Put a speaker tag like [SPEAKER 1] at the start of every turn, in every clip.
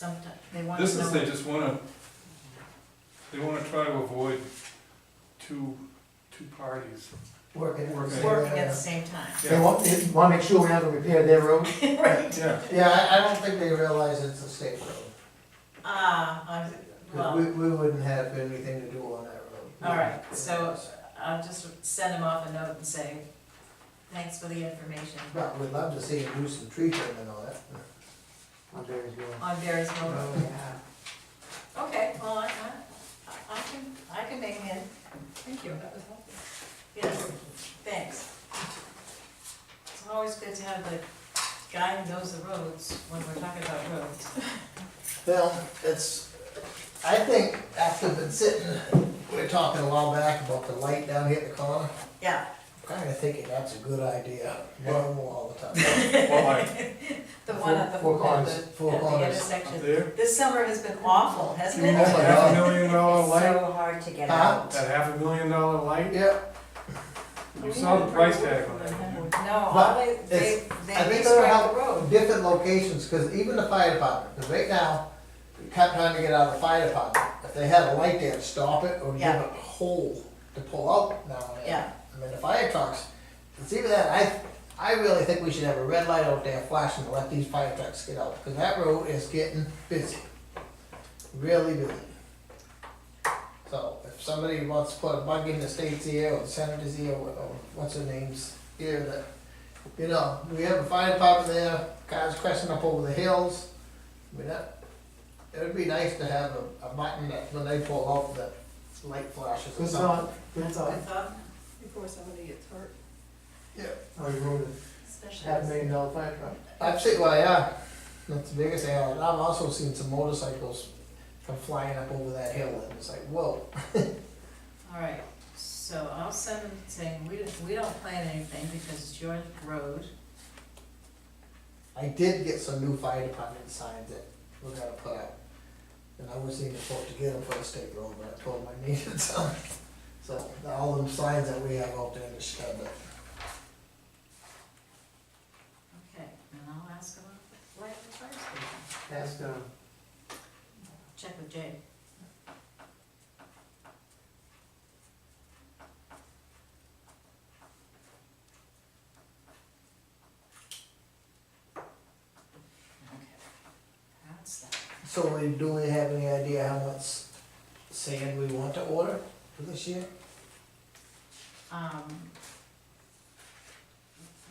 [SPEAKER 1] Sometimes, they want
[SPEAKER 2] This
[SPEAKER 1] to
[SPEAKER 2] is, they
[SPEAKER 1] know.
[SPEAKER 2] just wanna, they wanna try to avoid two, two parties.
[SPEAKER 3] Working.
[SPEAKER 2] Working.
[SPEAKER 1] Working at the same time.
[SPEAKER 3] They want, they want to make sure we have to repair their road.
[SPEAKER 1] Right.
[SPEAKER 2] Yeah,
[SPEAKER 3] Yeah, I, I don't think they realize it's a state road.
[SPEAKER 1] Ah, I-
[SPEAKER 3] 'cause we,
[SPEAKER 1] well,
[SPEAKER 3] we wouldn't have anything to do on that road.
[SPEAKER 1] all right, so I'll just send him off a note and say, thanks for the information
[SPEAKER 3] But we'd love to see them do some tree trimming on it. On Berry's Road.
[SPEAKER 1] on Barry's Mill Road.
[SPEAKER 3] Yeah.
[SPEAKER 1] Okay, well, I, I, I can, I can make it in. Thank you, that was helpful. Yes, thanks. It's always good to have the guy who knows the roads when we're talking about roads.
[SPEAKER 3] Well, it's, I think after been sitting, we were talking a while back about the light down here at the corner.
[SPEAKER 1] Yeah,
[SPEAKER 3] I'm Kinda thinking that's a good idea, one more all the time.
[SPEAKER 2] well, like,
[SPEAKER 1] the one at the, at
[SPEAKER 3] Four corners,
[SPEAKER 1] the,
[SPEAKER 3] four
[SPEAKER 1] at the
[SPEAKER 3] corners.
[SPEAKER 2] up
[SPEAKER 1] intersection.
[SPEAKER 2] there,
[SPEAKER 1] This summer has been awful, hasn't it?
[SPEAKER 3] Oh my
[SPEAKER 2] half a
[SPEAKER 3] God.
[SPEAKER 2] million dollar light,
[SPEAKER 4] So hard to get
[SPEAKER 3] Huh?
[SPEAKER 4] out.
[SPEAKER 2] that half a million dollar light,
[SPEAKER 3] Yeah,
[SPEAKER 2] you saw the price tag on that.
[SPEAKER 1] No, all they, they,
[SPEAKER 3] I
[SPEAKER 1] they
[SPEAKER 3] think they'll
[SPEAKER 1] restrict
[SPEAKER 3] have
[SPEAKER 1] the road.
[SPEAKER 3] different locations, cause even the fire department, 'cause right now, we can't trying to get out of the fire department. If they had a light there, stop it or give
[SPEAKER 1] Yeah.
[SPEAKER 3] it a hole to pull out now and then.
[SPEAKER 1] Yeah.
[SPEAKER 3] I mean, the fire trucks, it's even that, I, I really think we should have a red light out there flashing to let these fire trucks get out, cause that road is getting busy. Really busy. So if somebody wants to put a bug in the state's ear or the senator's ear, or or what's her name's ear, that you know, we have a fire department there, guys crashing up over the hills. I mean, that, it would be nice to have a, a button that when they pull off that light flashes or
[SPEAKER 5] Good thought,
[SPEAKER 3] something.
[SPEAKER 5] good
[SPEAKER 3] Oh.
[SPEAKER 1] I
[SPEAKER 5] thought.
[SPEAKER 1] thought,
[SPEAKER 4] Before somebody gets hurt.
[SPEAKER 5] I wrote a half
[SPEAKER 1] especially,
[SPEAKER 5] million dollar fire truck.
[SPEAKER 3] I've seen, well, yeah, that's the biggest thing, and I've also seen some motorcycles come flying up over that hill and it's like, whoa.
[SPEAKER 1] all right, so I'll send them saying, we, we don't plan anything because it's your road.
[SPEAKER 3] I did get some new fire department signs that we're gonna put out. And I wasn't even supposed to get them for the state road, but I told them I needed some. So, all them signs that we have out there in the shed, but
[SPEAKER 1] Okay, and I'll ask about the light at the fire station,
[SPEAKER 5] Ask, um,
[SPEAKER 1] check with Jay. Okay, that's that.
[SPEAKER 3] So we, do we have any idea how much sand we want to order for this year?
[SPEAKER 1] Um,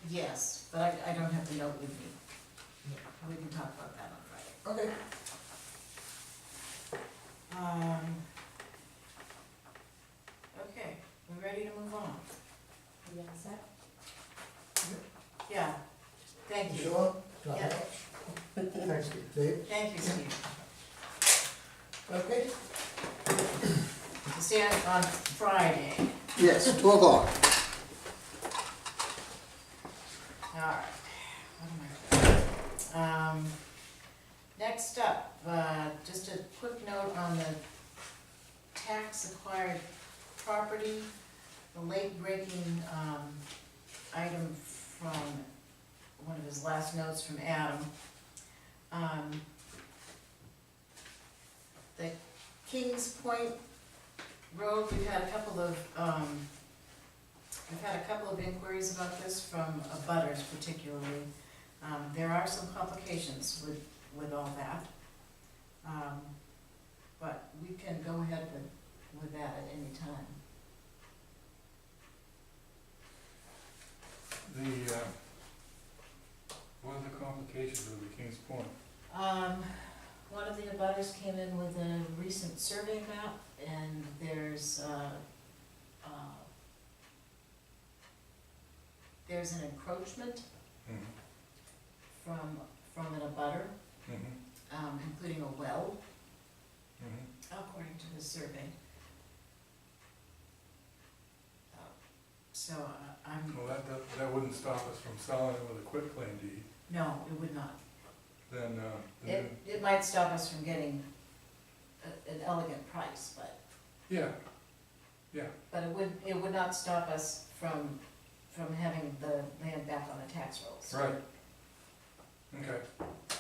[SPEAKER 1] yes, but I, I don't have the note with me. We can talk about that on Friday.
[SPEAKER 3] Okay.
[SPEAKER 1] Um, okay, we ready to move on? Yeah, thank you,
[SPEAKER 3] Sure? Not
[SPEAKER 1] Yeah.
[SPEAKER 3] much.
[SPEAKER 5] thanks, Steve.
[SPEAKER 3] Dave?
[SPEAKER 1] thank you, Steve.
[SPEAKER 3] Okay.
[SPEAKER 1] See you on Friday,
[SPEAKER 3] Yes, two o'clock.
[SPEAKER 1] alright. What am I doing? Um, next up, uh, just a quick note on the tax acquired property, the late breaking, um, item from one of his last notes from Adam. Um, The Kings Point Road, we've had a couple of, um, we've had a couple of inquiries about this from abutters particularly. Um, there are some complications with, with all that. Um, but we can go ahead with, with that at any time.
[SPEAKER 2] The, uh, what are the complications of the King's Point?
[SPEAKER 1] Um, one of the abutters came in with a recent survey map, and there's, uh, uh, there's an encroachment
[SPEAKER 2] Mhm,
[SPEAKER 1] from, from an abutter,
[SPEAKER 2] mhm,
[SPEAKER 1] um, including a well,
[SPEAKER 2] mhm.
[SPEAKER 1] according to the survey. So, uh, I'm,
[SPEAKER 2] Well, that, that, that wouldn't stop us from selling it with a quick claim deed,
[SPEAKER 1] no, it would not.
[SPEAKER 2] then, uh, the
[SPEAKER 1] It,
[SPEAKER 2] new-
[SPEAKER 1] it might stop us from getting a- an elegant price, but
[SPEAKER 2] yeah,
[SPEAKER 1] But it would, it would not stop us from, from having the land back on the tax rolls.
[SPEAKER 2] right. Okay,